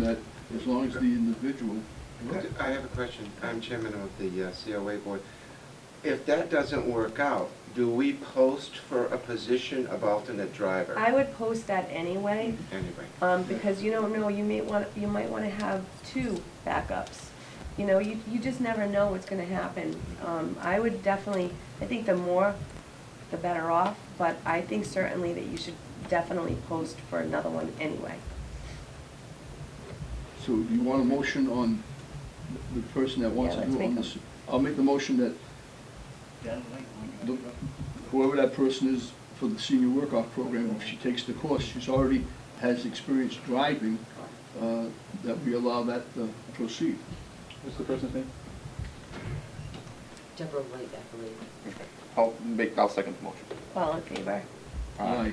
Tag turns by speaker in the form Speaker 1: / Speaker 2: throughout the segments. Speaker 1: that as long as the individual,
Speaker 2: I have a question. I'm chairman of the uh, COA board. If that doesn't work out, do we post for a position of alternate driver?
Speaker 3: I would post that anyway,
Speaker 2: Anyway.
Speaker 3: um, because you don't know, you may want, you might wanna have two backups. You know, you, you just never know what's gonna happen. Um, I would definitely, I think the more, the better off, but I think certainly that you should definitely post for another one anyway.
Speaker 1: so you want a motion on the person that wants
Speaker 3: Yeah,
Speaker 1: to
Speaker 3: let's
Speaker 1: do it on
Speaker 3: make
Speaker 1: this? I'll make the motion that the- whoever that person is for the senior work-off program, if she takes the course, she's already has experience driving, uh, that we allow that to proceed.
Speaker 4: What's the person's name?
Speaker 5: Deborah White, I believe.
Speaker 4: I'll make, I'll second the motion.
Speaker 3: All in favor?
Speaker 1: Aye.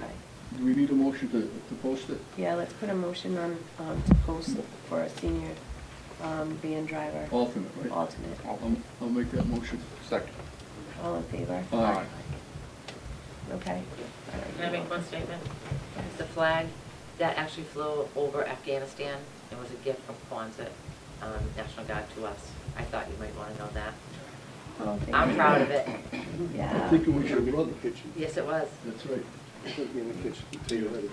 Speaker 1: Do we need a motion to, to post it?
Speaker 3: Yeah, let's put a motion on, um, to post for a senior, um, van driver.
Speaker 1: Alternate, right?
Speaker 3: Alternate.
Speaker 1: I'll, I'll make that motion.
Speaker 4: Second.
Speaker 3: All in favor?
Speaker 1: Aye.
Speaker 3: Okay.
Speaker 5: Can I make one statement? It's the flag that actually flew over Afghanistan and was a gift from Kwanzaa um, National Guard to us. I thought you might want to know that.
Speaker 3: All in
Speaker 5: I'm
Speaker 3: favor?
Speaker 5: proud of it.
Speaker 1: I
Speaker 3: Yeah.
Speaker 1: think it was your brother.
Speaker 5: Yes, it was.
Speaker 1: That's right.
Speaker 4: in the kitchen, until you're ready.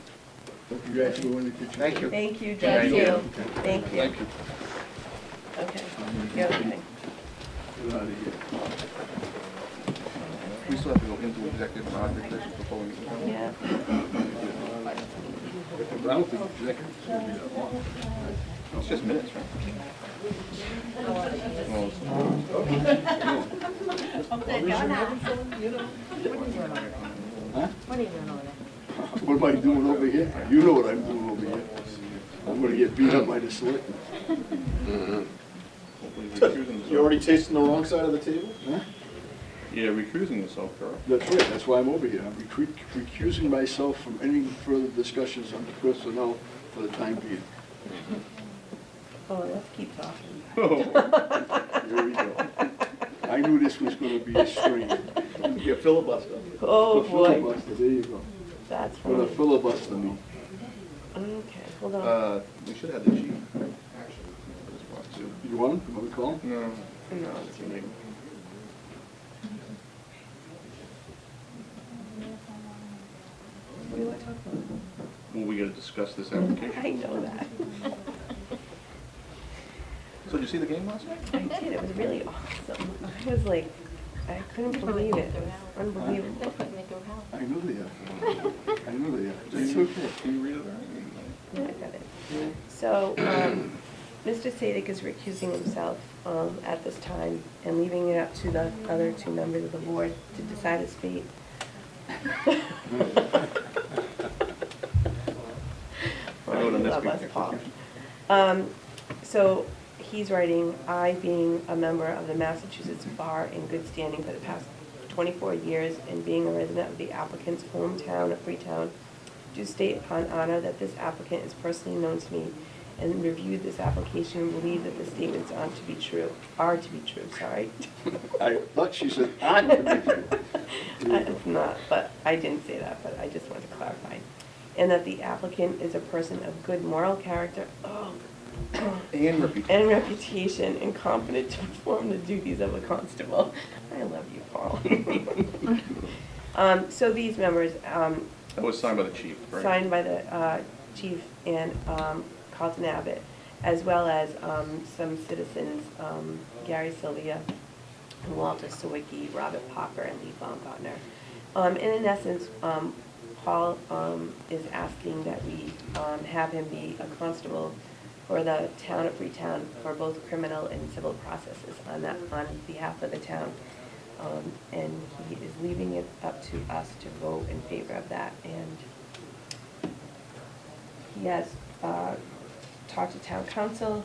Speaker 1: But you guys go in the kitchen.
Speaker 2: Thank you.
Speaker 3: Thank you,
Speaker 5: Thank
Speaker 3: thank you, thank you.
Speaker 1: Thank you.
Speaker 3: Okay.
Speaker 1: I'm
Speaker 3: The
Speaker 1: gonna
Speaker 3: other thing.
Speaker 1: Get out of here.
Speaker 4: We still have to go into executive session before we.
Speaker 3: Yeah.
Speaker 1: But I don't think executive's gonna be that long.
Speaker 4: It's just minutes, right? Well, it's-
Speaker 1: What am I doing over here? You know what I'm doing over here. I'm gonna get beat up by the selectmen.
Speaker 4: hopefully recusing
Speaker 6: You
Speaker 4: yourself.
Speaker 6: already tasting the wrong side of the table?
Speaker 4: Yeah, recusing yourself, Carl.
Speaker 1: That's right, that's why I'm over here. I'm recru- recusing myself from any further discussions on the personnel for the time being.
Speaker 3: Oh, let's keep talking.
Speaker 1: There Oh, we go. I knew this was gonna be a strain.
Speaker 6: You filibuster.
Speaker 3: Oh,
Speaker 1: For
Speaker 3: boy,
Speaker 1: filibuster, There you go.
Speaker 3: that's
Speaker 1: What a
Speaker 3: funny.
Speaker 1: filibuster me.
Speaker 3: Okay, hold on.
Speaker 4: Uh, we should have the chief.
Speaker 1: You want him? You want me to call him?
Speaker 4: No.
Speaker 3: No,
Speaker 4: it's your name.
Speaker 3: What do you want to talk
Speaker 4: Well, we gotta discuss this
Speaker 3: about? I
Speaker 4: application.
Speaker 3: know that.
Speaker 4: So did you see the game last night?
Speaker 3: I did, it was really awesome. I was like, I couldn't believe it. It was unbelievable.
Speaker 1: I know they are. I know they are. It's okay.
Speaker 4: Can you read it? out?
Speaker 3: Yeah, I got it. So, um, Mr. Sadik is recusing himself um, at this time and leaving it up to the other two members of the board to decide his fate.
Speaker 4: I vote on this
Speaker 3: Love us,
Speaker 4: week.
Speaker 3: Paul. Um, So, he's writing, "I being a member of the Massachusetts Bar in good standing for the past 24 years and being a resident of the applicant's hometown of Freetown, do state upon honor that this applicant is personally known to me and reviewed this application and believe that the statements are to be true, are to be true, sorry.
Speaker 1: I thought she said, "I'm gonna be here."
Speaker 3: It's not, but I didn't say that, but I just wanted to clarify. And that the applicant is a person of good moral character, oh,
Speaker 4: And repeat.
Speaker 3: and reputation and competent to perform the duties of a constable. I love you, Paul. Um, so these members, um,
Speaker 4: That was signed by the chief, right?
Speaker 3: signed by the uh, chief and um, Carlton Abbott, as well as um, some citizens, um, Gary Sylvia, Walter Sawicki, Robert Popper, and Lee Baumgartner. Um, And in essence, um, Paul um, is asking that we um, have him be a constable for the town of Freetown for both criminal and civil processes on that, on behalf of the town. Um, And he is leaving it up to us to vote in favor of that, and he has uh, talked to town council,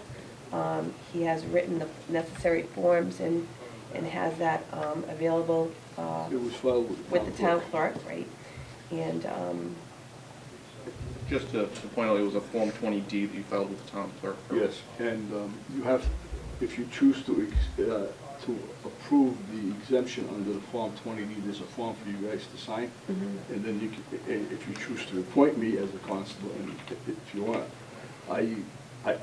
Speaker 3: um, he has written the necessary forms and, and has that um, available uh,
Speaker 1: It was filed with the
Speaker 3: with
Speaker 1: town.
Speaker 3: the town clerk, right? And, um,
Speaker 4: Just to to point out, it was a Form 20D that you filed with the town clerk.
Speaker 1: Yes, and um, you have, if you choose to, ex- uh, to approve the exemption under the Form 20D, there's a form for you guys to sign.
Speaker 3: Mm-hmm.
Speaker 1: And eh, then you, can- i- i- if you choose to appoint me as a constable, and i- if you want, I